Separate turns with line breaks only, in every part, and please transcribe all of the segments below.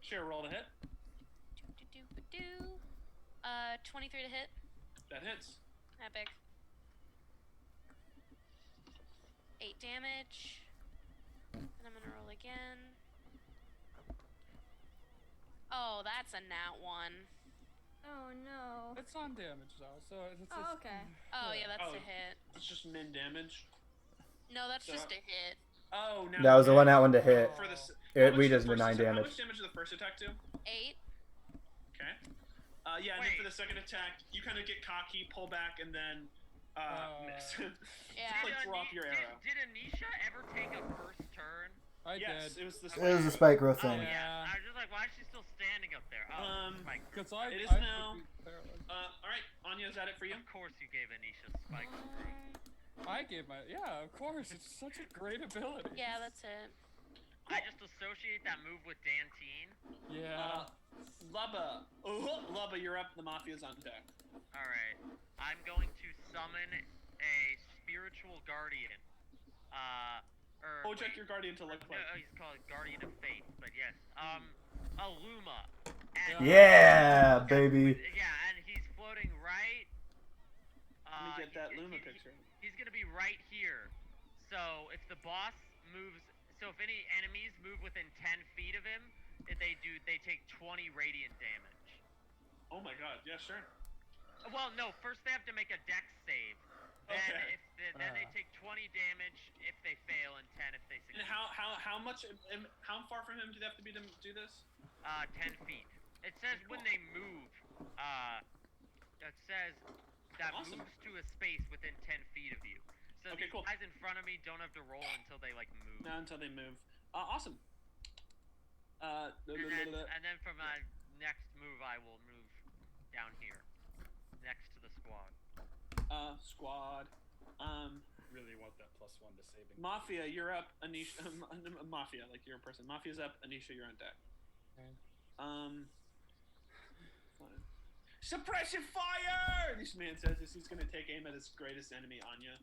Share roll to hit.
Do-do-do-ba-do. Uh, 23 to hit.
That hits.
Epic. 8 damage. And I'm gonna roll again. Oh, that's a nat 1.
Oh no.
It's on damage though, so it's, mm, it's
Oh, okay.
Oh, yeah, that's
Oh.
a hit.
It's just min damage.
No, that's
So-
just a hit.
Oh, now
That was the one
out
that one to hit.
For the, s- how
It,
much
we
did the
just did
first
nine
atta- How
damage.
much damage did the first attack do?
8?
Okay. Uh, yeah, and then for
Wait.
the second attack, you kind of get cocky, pull back, and then uh,
Uh,
miss.
Yeah.
Just, like
Ani-
drop your
did-
arrow.
Did, Anisha ever take a first turn?
I
yes,
did.
it was the
It was a spike growth
Oh,
thing.
yeah.
Yeah.
I was just like, why is she still standing up there? Oh,
Um,
spike.
Because I,
It is
I would
now-
be paralyzed.
Uh, all right, Anya, is that it for you?
Of course you gave Anisha spike.
I gave my yeah, of course. It's such a great ability.
Yeah, that's it.
I just associate that move with Dantine.
yeah.
Uh, Lubba, oh, Lubba, you're up. The mafia's on deck.
All right, I'm going to summon a spiritual guardian. Uh, or
Oh, check
wait,
your guardian to look
No, oh,
like.
he's called Guardian of Faith, but yes. Um, Aluma. And-
Yeah, baby.
Yeah, and he's floating right. Uh,
Let me get that
he-
Luma
he-
picture.
He's gonna be right here. So if the boss moves, so if any enemies move within 10 feet of him, if they do, they take 20 radiant damage.
Oh my god, yeah, sure.
Well, no, first they have to make a dex save. Then,
Okay.
if they, then they
Uh.
take 20 damage if they fail and 10 if they
And
succeed.
how how how much? am- How far from him do they have to be to do this?
Uh, 10 feet. It says when they move, uh, it says that
Awesome.
moves to a space within 10 feet of you. So
Okay,
the
cool.
guys in front of me don't have to roll until they, like, move.
Not until they move. Uh, awesome. Uh,
And then, and then for my next move, I will move down here, next to the squad.
uh, squad. Um,
Really want that plus one to saving.
Mafia, you're up. Anisha, um, um, Mafia, like you're a person. Mafia's up. Anisha, you're on deck.
Okay.
Um. fine. Suppression fire! This man says as he's gonna take aim at his greatest enemy, Anya.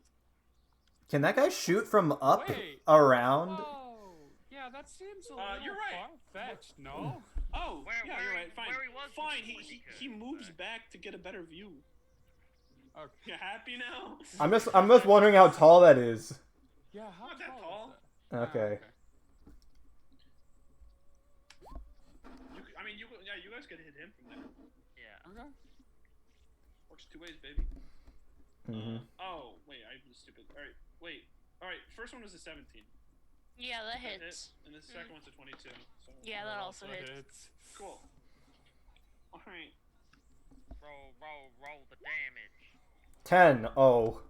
Can that guy shoot from up
Wait.
around?
Oh, yeah, that seems a
Uh,
little
you're right.
far-fetched, no?
Oh,
Where-
yeah,
where
you're
he-
right. Fine.
where he was
Fine. He,
before he
he,
could.
he moves
Alright.
back to get a better view.
Okay.
You happy now?
I'm just I'm just wondering how tall that is.
Yeah, how
Not that
tall is
tall.
that? Ah,
Okay.
You, c- I mean, you yeah, you guys could hit him from there.
Yeah.
Okay.
Works two ways, baby.
hmm
Oh wait, I was stupid. All right, wait. All right, first one was a 17.
Yeah, that
That hit,
hits. Mm.
and the second one's a 22. So.
Yeah, that also hits.
Cool. All right.
Roll, roll, roll the damage.
Ten. Oh.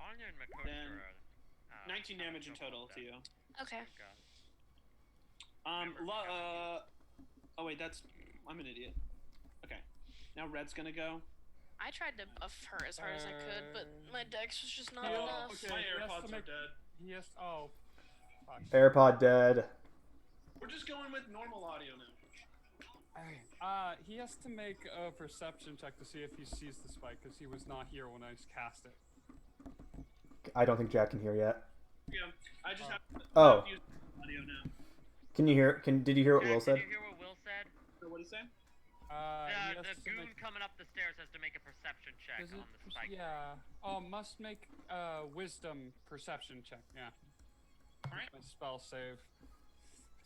Anya and Makoto
Then,
are, uh,
19
having
damage in
trouble
total
with
to you.
that.
Okay.
Thank God.
Um,
Remember,
lo-
we
uh, oh wait, that's I'm an idiot. Okay, now red's gonna go.
I tried to buff her as hard as I could, but my
Um,
dex was just not
Oh,
enough.
okay.
My
he has
AirPods
to
are
make-
dead.
He has. Oh. Fuck.
AirPod dead.
We're just going with normal audio now.
Uh, he has to make a perception check to see if he sees the spike because he was not here when I cast it.
I don't think Jack can hear yet.
Yeah, I just
Oh.
have to, I
Oh.
have to use audio now.
Can you hear? Can did you hear what
Jack,
Will said?
Did you hear what Will said?
So what is that?
Uh,
The,
he has
the
to
goon
make.
coming up the stairs has to make a perception check
Is
on
it
the
perce-
spike.
yeah. Oh, must make uh wisdom perception check. Yeah.
Alright.
My spell save.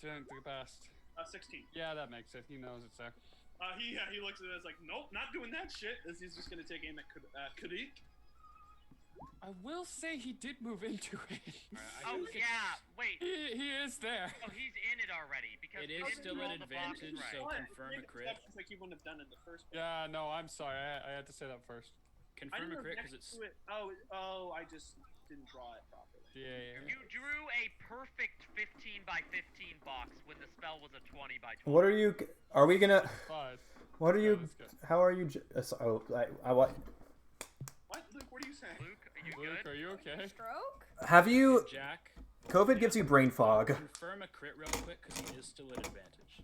Doing the best.
Uh, 16.
Yeah, that makes it. He knows it's there.
Uh, he yeah, he looks at it as like, nope, not doing that shit. As he's just gonna take aim at Kad- uh, Kadik.
I will say he did move into it.
Alright, I
Oh
guess-
yeah, wait.
he, he is there.
Oh, he's in it already because
It
he
is
didn't
still
roll
an
the box
advantage,
right.
so-
Why?
confirm
Make
a crit.
perceptions Like you wouldn't have done in the first. place.
Yeah, no, I'm sorry. I, I had to say that first.
I
confirm a
didn't
crit
react
because it's
to it. Oh, it- oh, I just didn't draw it properly.
Yeah, yeah,
You drew a perfect 15 by 15 box when the spell was a 20 by 20.
What are you? Are we gonna?
yeah. But
What are
No,
you?
it's good.
How are you? j- uh, so- Oh, I, I wa-
What, Luke? What are you saying?
Luke, are you
Luke,
good?
are you okay?
Stroke?
Have you?
Jack.
COVID gives you brain fog.
Confirm a crit real quick because he is still at advantage.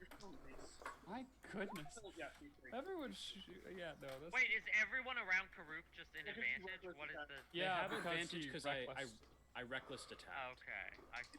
You're so Oh, nice.
My goodness.
Oh, Yeah, three, three.
Everyone, sh- yeah, no, that's
Wait, is everyone around Karuk just in
Yeah, 'cause you work
advantage?
with
What is
that.
the?
They
yeah,
have
because
advantage
he
because I, I
reckless.
Oh,
I reckless attacked.
oh, Okay, I see.